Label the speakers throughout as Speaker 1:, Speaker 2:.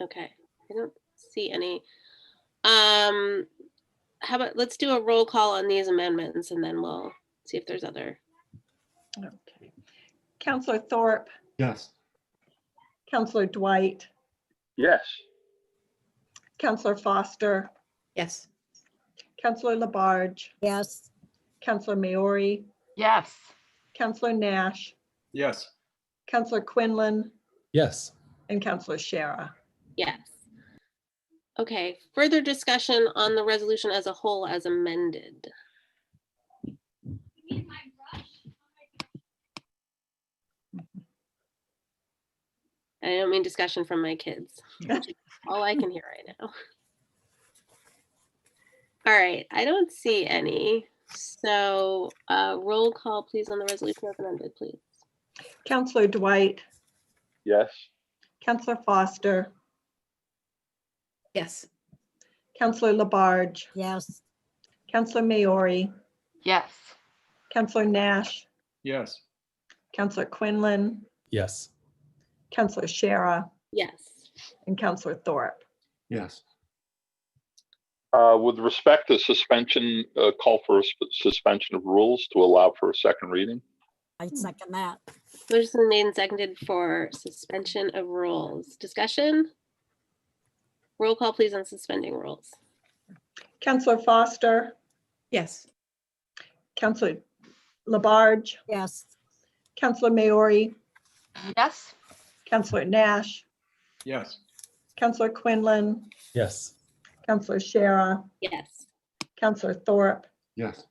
Speaker 1: Okay, I don't see any. Um, how about, let's do a roll call on these amendments and then we'll see if there's other.
Speaker 2: Okay. Counselor Thorpe,
Speaker 3: Yes.
Speaker 2: Counselor Dwight,
Speaker 4: Yes.
Speaker 2: Counselor Foster,
Speaker 5: Yes.
Speaker 2: Counselor Labarge,
Speaker 6: yes,
Speaker 2: Counselor Maori,
Speaker 7: yes,
Speaker 2: Counselor Nash,
Speaker 3: Yes.
Speaker 2: Counselor Quinlan,
Speaker 8: yes,
Speaker 2: and Counselor Shara.
Speaker 1: Yes. Okay, further discussion on the resolution as a whole as amended. I don't mean discussion from my kids. which is All I can hear right now. All right, I don't see any. So uh, roll call, please, on the resolution as amended, please.
Speaker 2: Counselor Dwight,
Speaker 4: Yes.
Speaker 2: Counselor Foster,
Speaker 5: Yes.
Speaker 2: Counselor Labarge,
Speaker 6: yes,
Speaker 2: Counselor Maori,
Speaker 7: yes,
Speaker 2: Counselor Nash,
Speaker 3: Yes.
Speaker 2: Counselor Quinlan,
Speaker 8: yes,
Speaker 2: Counselor Shara,
Speaker 1: Yes.
Speaker 2: and Counselor Thorpe.
Speaker 3: Yes.
Speaker 4: Uh, With respect to suspension, uh, call for a sp- suspension of rules to allow for a second reading.
Speaker 6: I second that.
Speaker 1: Motion's been made and seconded for suspension of rules. Discussion? Roll call, please, on suspending rules.
Speaker 2: Counselor Foster,
Speaker 5: Yes.
Speaker 2: Counselor Labarge,
Speaker 6: Yes,
Speaker 2: Counselor Maori,
Speaker 7: yes,
Speaker 2: Counselor Nash,
Speaker 3: Yes.
Speaker 2: Counselor Quinlan,
Speaker 8: yes,
Speaker 2: Counselor Shara,
Speaker 1: Yes.
Speaker 2: Counselor Thorpe,
Speaker 3: Yes.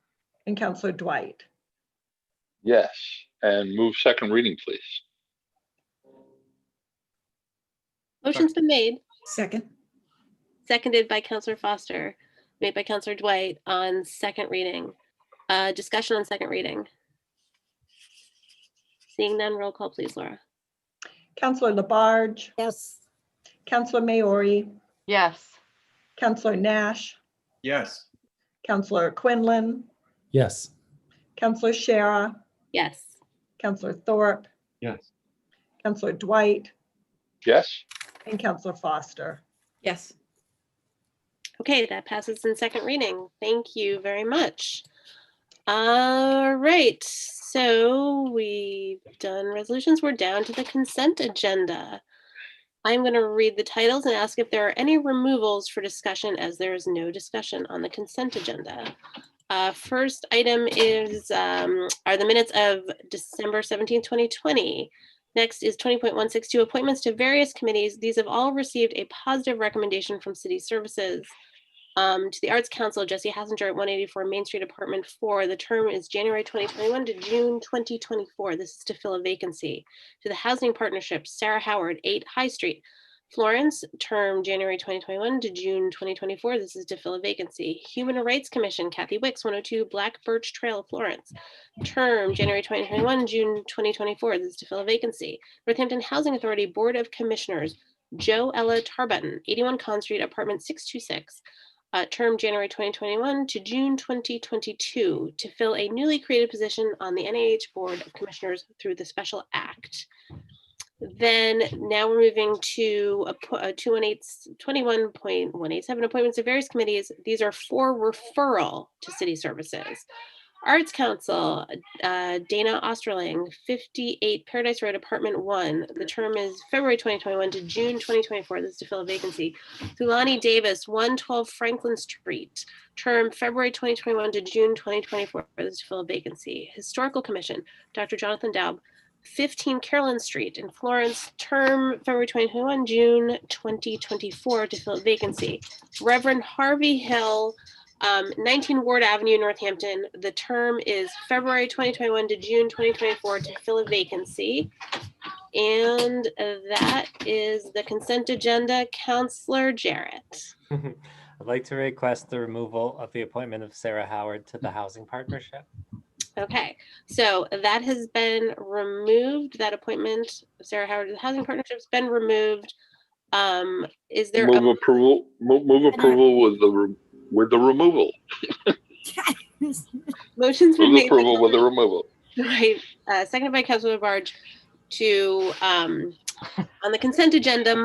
Speaker 2: and Counselor Dwight.
Speaker 4: Yes. And move second reading, please.
Speaker 1: Motion's been made,
Speaker 5: Second.
Speaker 1: seconded by Counselor Foster, made by Counselor Dwight on second reading. Uh, discussion on second reading. Seeing none, roll call, please, Laura.
Speaker 2: Counselor Labarge,
Speaker 6: yes,
Speaker 2: Counselor Maori,
Speaker 7: yes,
Speaker 2: Counselor Nash,
Speaker 3: Yes.
Speaker 2: Counselor Quinlan,
Speaker 8: yes,
Speaker 2: Counselor Shara,
Speaker 1: Yes.
Speaker 2: Counselor Thorpe,
Speaker 3: Yes.
Speaker 2: Counselor Dwight,
Speaker 4: Yes.
Speaker 2: and Counselor Foster.
Speaker 5: Yes.
Speaker 1: Okay, that passes in second reading. Thank you very much. All right, so we've done resolutions. We're down to the consent agenda. I'm going to read the titles and ask if there are any removals for discussion as there is no discussion on the consent agenda. Uh, First item is, um, are the minutes of December 17, 2020. Next is twenty point one six two appointments to various committees. These have all received a positive recommendation from City Services. Um, to the Arts Council, Jesse Hassinger at one eighty-four Main Street Apartment Four. The term is January twenty twenty-one to June twenty twenty-four. This is to fill a vacancy. To the Housing Partnership, Sarah Howard, eight High Street. Florence, term January twenty twenty-one to June twenty twenty-four. This is to fill a vacancy. Human Rights Commission, Kathy Wicks, one oh two Black Birch Trail, Florence term, January 2021, June 2024. This is to fill a vacancy. Northampton Housing Authority Board of Commissioners, Joe Ella Tarbutton, 81 Con Street, Apartment 626. uh, term January 2021 to June 2022 to fill a newly created position on the NIH Board of Commissioners through the Special Act. Then now we're moving to appo- uh, 218 21.187 appointments to various committees. These are for referral to city services. Arts Council, uh, Dana Osterling, 58 Paradise Road, Apartment 1. The term is February 2021 to June 2024. This is to fill a vacancy. Thulani Davis, 112 Franklin Street. Term February 2021 to June 2024. This is to fill a vacancy. Historical Commission, Dr. Jonathan Daub, 15 Carolyn Street in Florence. Term February 2021, June 2024 to fill a vacancy. Reverend Harvey Hill, um, 19 Ward Avenue, Northampton. The term is February 2021 to June 2024 to fill a vacancy. And uh, that is the consent agenda. Counselor Jarrett.
Speaker 9: I'd like to request the removal of the appointment of Sarah Howard to the Housing Partnership.
Speaker 1: Okay, so that has been removed. That appointment, Sarah Howard, of the Housing Partnership's been removed. Um, is there? a-
Speaker 4: Move approval, move, move approval with the, re- with the removal.
Speaker 1: Motion's been
Speaker 4: Move
Speaker 1: made. by
Speaker 4: approval with the removal.
Speaker 1: Right, uh, seconded by Councilor Barge to, um, on the consent agenda,